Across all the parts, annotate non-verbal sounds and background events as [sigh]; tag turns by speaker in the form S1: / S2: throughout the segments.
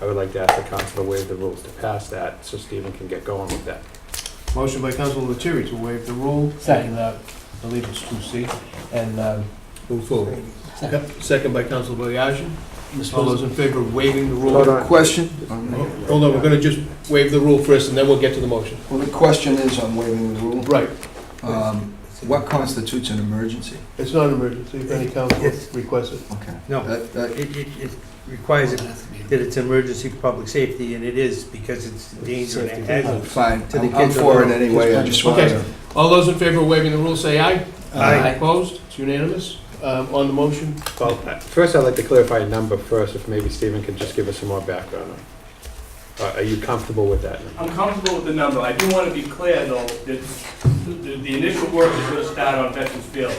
S1: I would like to ask the council to waive the rules to pass that, so Stephen can get going with that.
S2: Motion by Council Lettieri to waive the rule.
S3: Second.
S2: And, uh, I believe it's two C, and um, move forward.
S3: Second.
S2: Yep, second by Council Boyajin.
S3: Mr.
S2: All those in favor of waiving the rule?
S1: Hold on.
S4: Question,
S2: Hold on, we're gonna just waive the rule first, and then we'll get to the motion.
S4: well, the question is, I'm waiving the rule.
S2: Right.
S4: Um, What constitutes an emergency?
S2: It's not an emergency, if any council
S5: Yes.
S2: requests it.
S4: Okay.
S5: No.
S4: That- that-
S5: It, it, it requires it- that it's emergency public safety, and it is, because it's dangerous and a hazard.
S4: Fine,
S5: To the
S4: I'm I'm
S5: kids
S4: for it
S5: alone.
S4: anyway, I just wanted to. uh,
S2: All those in favor of waiving the rule, say aye.
S3: Aye.
S2: Opposed? It's unanimous. Um, On the motion,
S1: Well, uh, first, I'd like to clarify a number first, if maybe Stephen could just give us some more background on. it. Uh, Are- Are you comfortable with that?
S6: I'm comfortable with the number. I do want to be clear, though, that the the initial work is going to start on Veterans Field.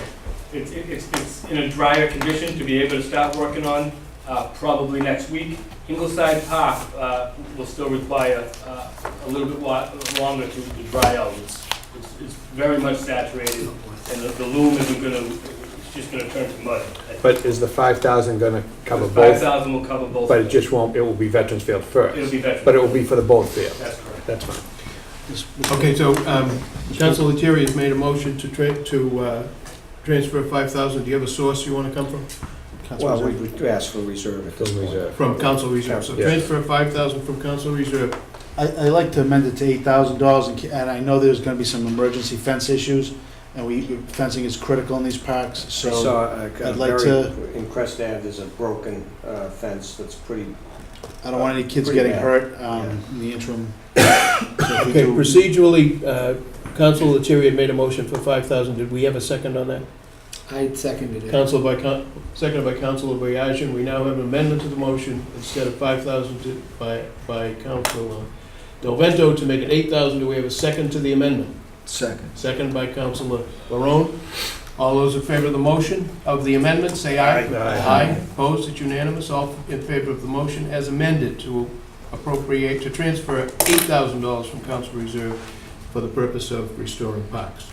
S6: It's, it's, it's in a drier condition to be able to start working on, uh, probably next week. Ingleside Park uh, will still require uh, a little bit wa- longer to to dry out. It's, it's- it's very much saturated, and the the loom isn't going to, it's just going to turn to mud.
S1: But is the five thousand gonna cover
S6: Five
S1: both?
S6: thousand will cover both.
S1: But it just won't, it will be Veterans Field
S6: It'll
S1: first,
S6: be Veterans.
S1: but it will be for the both fields.
S6: That's correct.
S1: That's fine.
S2: okay, so um, Council Lettieri has made a motion to tra, to uh, transfer five thousand. Do you have a source you wanna come from? Council
S3: Oh,
S7: Well, we
S2: Reserve.
S7: would ask for reserve at this
S1: From
S7: point.
S1: reserve.
S2: From Council Reserve. So
S1: Yeah.
S2: transfer five thousand from Council Reserve.
S3: I, I'd like to amend it to eight thousand dollars, and ca- and I know there's gonna be some emergency fence issues, and we, fencing is critical in these parks,
S7: I
S3: so.
S7: saw a a
S1: uh,
S3: I'd like
S7: very, Uh, in Crest Ave, there's a broken uh, fence that's pretty,
S3: I don't want any kids
S7: Pretty
S3: getting
S7: bad.
S3: hurt, um, in the interim.
S1: [coughs]
S2: Okay, procedurally, uh, Council Lettieri had made a motion for five thousand. Did we have a second on that?
S3: I seconded
S2: Counsel by, coun- seconded by Counsel Boyajin, we now have an amendment to the motion, instead of five thousand to, by, by Counsel uh, Del Vento to make it eight thousand, do we have a second to the amendment?
S4: Second.
S2: Second by Counsel Barone. All those in favor of the motion, of the amendment, say aye.
S1: Aye.
S2: opposed, it's unanimous, all in favor of the motion as amended to appropriate, to transfer eight thousand dollars from council reserve for the purpose of restoring parks.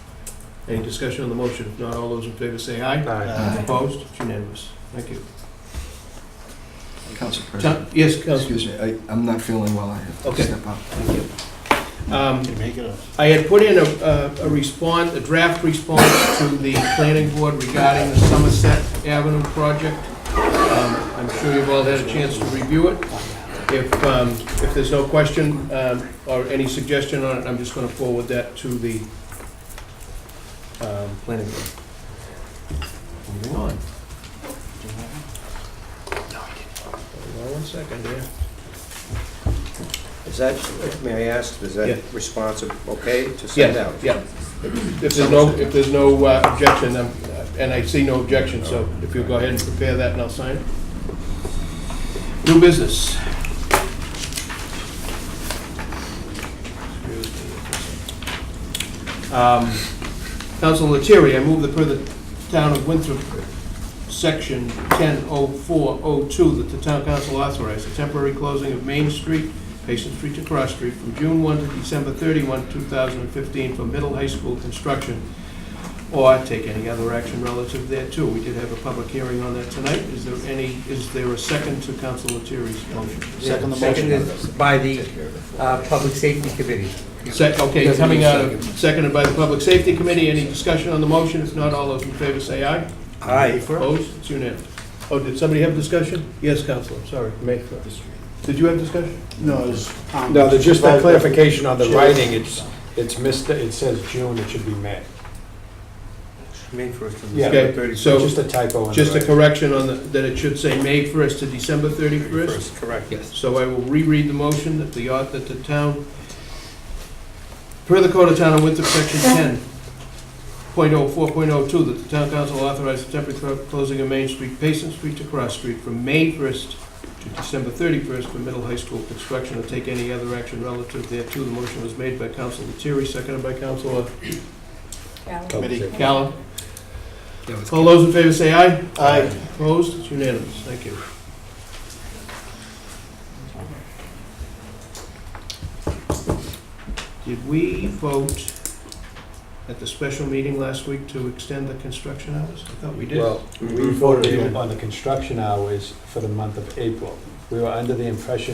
S2: Any discussion on the motion? If not, all those in favor say aye.
S1: Aye.
S4: Aye.
S2: Opposed? It's unanimous. Thank you.
S4: Council President,
S2: Tom- Yes, Counsel.
S4: excuse me, I- I'm not feeling well, I have to
S2: Okay.
S4: step out.
S2: Um,
S3: Can make it up.
S2: I had put in a- a a response, a draft response to the planning board regarding the Somerset Avenue project. Um, I'm sure you've all had a chance to review it. If, um, if there's no question um, or any suggestion on it, I'm just going to forward that to the um, planning board. Moving on. Hold on one second here.
S7: is that, may I ask, is
S2: Yeah.
S7: that responsive, okay to send
S2: Yeah,
S7: out?
S2: yeah. If there's no, if there's no uh, objection, I'm- and I see no objection, so if you'll go ahead and prepare that and I'll sign it. New business. Um, Council Lettieri, I move that per the town of Winthrop, section 100402, that the town council authorize the temporary closing of Main Street Patient Street to Cross Street from June 1 to December 31, 2015 for middle high school construction, or take any other action relative thereto. We did have a public hearing on that tonight. Is there any, is there a second to Council Lettieri's motion?
S3: Second the
S5: Second
S3: motion.
S5: is by the uh, Public Safety Committee.
S2: Sec- Okay, coming out of, seconded by the Public Safety Committee, any discussion on the motion? If not, all those in favor say aye.
S7: Aye.
S2: Opposed? It's unanimous. Oh, did somebody have discussion? Yes, Counselor, sorry.
S1: Make-
S2: Did you have discussion?
S3: No, it's. um,
S1: No, there's just that clarification on the
S3: Sure.
S1: writing, it's, it's missed, it says June, it should be May.
S5: May first and
S1: Yeah.
S5: December thirty-first.
S2: So-
S1: Just a typo in the
S2: Just a
S1: writing.
S2: correction on the, that it should say May 1st to December 31st?
S5: Correct, yes.
S2: So I will reread the motion that the, au- that the town, per the Code of Town of Winthrop, Section 10.04.02, that the town council authorize the temporary clo- closing of Main Street, Payson Street to Cross Street from May 1st to December 31st for middle high school construction, or take any other action relative thereto. The motion was made by Council Lettieri, seconded by Council
S1: Committee.
S2: Callan. All those in favor say aye.
S3: Aye.
S2: Opposed? It's unanimous. Thank you. Did we vote at the special meeting last week to extend the construction hours? I thought we did.
S1: Well, we voted on the construction hours for the month of April. We were under the impression